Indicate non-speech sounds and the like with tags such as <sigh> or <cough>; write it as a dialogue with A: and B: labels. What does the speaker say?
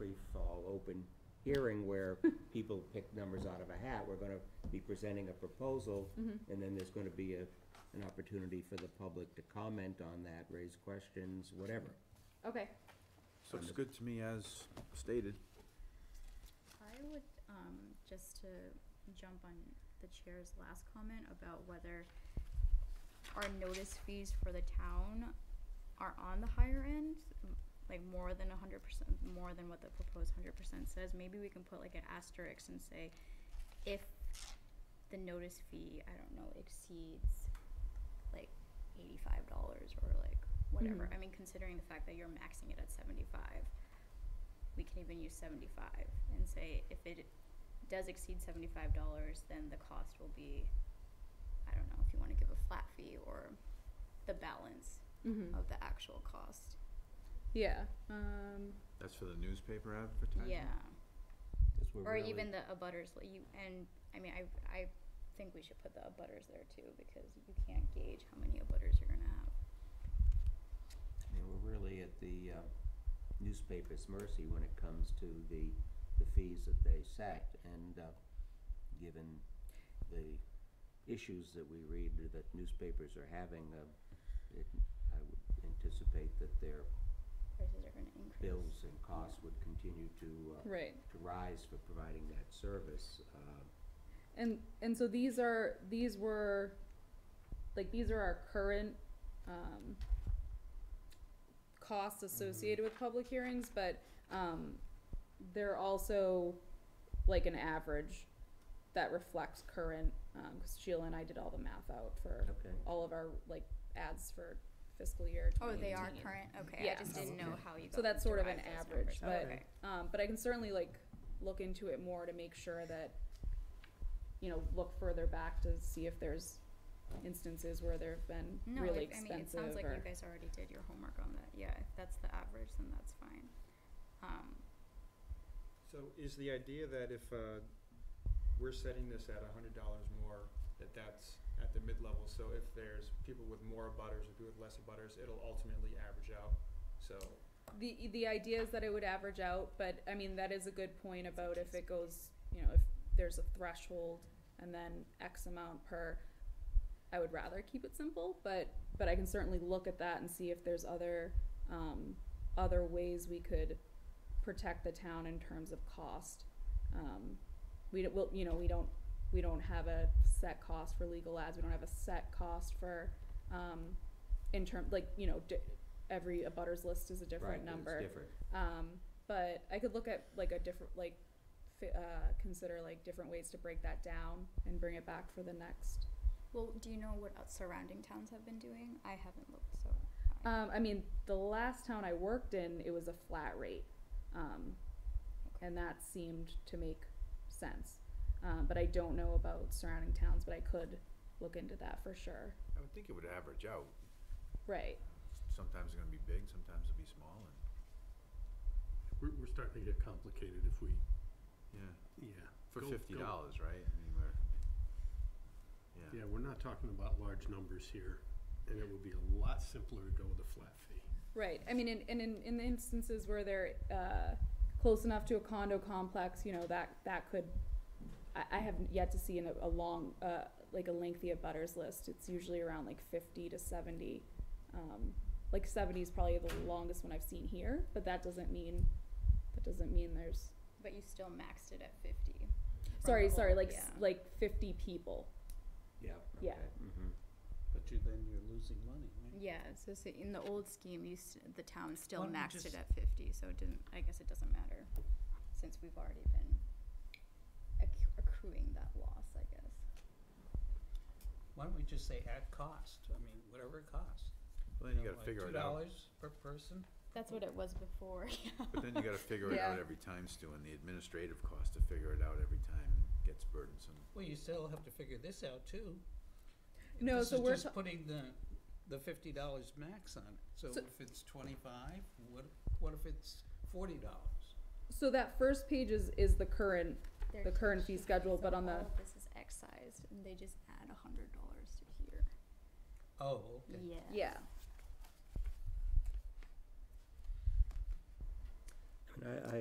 A: free-fall, open hearing
B: <laughs>
A: where people pick numbers out of a hat. We're gonna be presenting a proposal,
B: Mm-hmm.
A: and then there's gonna be a, an opportunity for the public to comment on that, raise questions, whatever.
C: Okay.
D: Looks good to me as stated.
B: I would, um, just to jump on the chair's last comment about whether our notice fees for the town are on the higher end, m- like more than hundred percent, more than what the proposed hundred percent says, maybe we can put like an asterisk and say, if the notice fee, I don't know, exceeds like eighty-five dollars or like whatever,
C: Mhm.
B: I mean, considering the fact that you're maxing it at seventy-five, we can even use seventy-five and say if it does exceed seventy-five dollars, then the cost will be, I don't know, if you wanna give a flat fee or the balance
C: Mm-hmm.
B: of the actual cost.
C: Yeah. Um,
D: That's for the newspaper advertising?
B: Yeah,
A: 'Cause we're
B: or
A: really-
B: even the abutters, like you, and, I mean, I, I think we should put the abutters there too, because you can't gauge how many abutters you're gonna have.
A: I mean, we're really at the uh, newspaper's mercy when it comes to the, the fees that they set. And uh, given the issues that we read that newspapers are having, uh, it- I would anticipate that their
B: Prices are gonna increase.
A: bills and costs would continue to, uh,
C: right.
A: to rise for providing that service. Uh,
C: And and so these are these were like these are our current um,
B: Mm-hmm.
C: costs associated with public hearings, but um, they're also like an average that reflects current. Because Sheila and I did all the math out for
A: Okay.
C: all of our like ads for fiscal year.
B: Oh, they are
C: 2018.
B: current, Oh, okay, I
C: Yeah.
B: just didn't know
A: Okay.
B: how you got.
C: So that's sort of an
B: derived those
C: average,
B: numbers.
C: but,
B: Okay.
C: um, but I can certainly like look into it more to make sure that, you know, look further back to see if there's instances where there have been
B: No,
C: really
B: if- I mean, it sounds
C: expensive
B: like you
C: or,
B: guys already did your homework on that. Yeah, if that's the average, then that's fine. Um,
E: So is the idea that if uh, we're setting this at hundred dollars more, that that's at the mid-level, so if there's people with more butters or people with less butters, it'll ultimately average out, so.
C: the, the idea is that it would average out, but I mean, that is a good point about if it goes, you know, if there's a threshold and then X amount per, I would rather keep it simple, but, but I can certainly look at that and see if there's other, um, other ways we could protect the town in terms of cost. Um, we don't, we'll, you know, we don't, we don't have a set cost for legal ads, we don't have a set cost for, um, in term, like, you know, di- every abutters list is a different
A: right,
C: number.
A: It's different.
C: Um, but I could look at like a different, like, fi- uh, consider like different ways to break that down and bring it back for the next.
B: well, do you know what out- surrounding towns have been doing? I haven't looked, so. I-
C: Um, I mean, the last town I worked in, it was a flat rate. Um,
B: okay.
C: and that seemed to make sense. Um, but I don't know about surrounding towns, but I could look into that for sure.
D: I would think it would average out.
C: Right.
D: Sometimes it's gonna be big, sometimes it'll be small, and,
F: We're, we're starting to get complicated if we,
D: yeah,
F: yeah.
D: for
F: Go-
D: fifty
F: go-
D: dollars, right? I mean, we're, yeah.
F: Yeah, we're not talking about large numbers here, and it would be a lot simpler to go with a flat fee.
C: Right. I mean, in, in, in, in the instances where they're uh, close enough to a condo complex, you know, that, that could, I, I have yet to see in a, a long, uh, like a lengthy abutters list. It's usually around like 50 to 70. Um, like 70 is probably the longest one I've seen here, but that doesn't mean, that doesn't mean there's,
B: But you still maxed it at fifty. from
C: sorry,
B: the
C: sorry,
B: whole-
C: like,
B: yeah.
C: s like 50 people.
A: Yeah.
C: Yeah.
A: okay, mhm.
G: But you, then you're losing money, right?
B: Yeah, so, so in the old scheme, you, st- the town still
G: Why don't we
B: maxed it
G: just-
B: at fifty, so it didn't, I guess it doesn't matter, since we've already been acc- accruing that loss, I guess.
G: Why don't we just say at cost, I mean, whatever it costs.
D: Well, then you
G: know,
D: gotta
G: like
D: figure
G: Two
D: it out,
G: dollars per person,
B: That's what it was before, <laughs> yeah.
D: but then you gotta figure it
C: Yeah.
D: out every time, Stu, and the administrative cost to figure it out every time gets burdensome.
G: well, you still have to figure this out too.
C: No, so we're
G: This is
C: ta-
G: just putting the, the fifty dollars max on it, so
C: So-
G: if it's twenty-five, what, what if it's forty dollars?
C: So that first page is, is the current,
B: their
C: the current fee
B: sheet,
C: schedule,
B: so
C: but on
B: all
C: the-
B: of This is excised, and they just add a hundred dollars to here.
G: Oh, okay.
B: Yeah.
C: yeah.
A: And I, I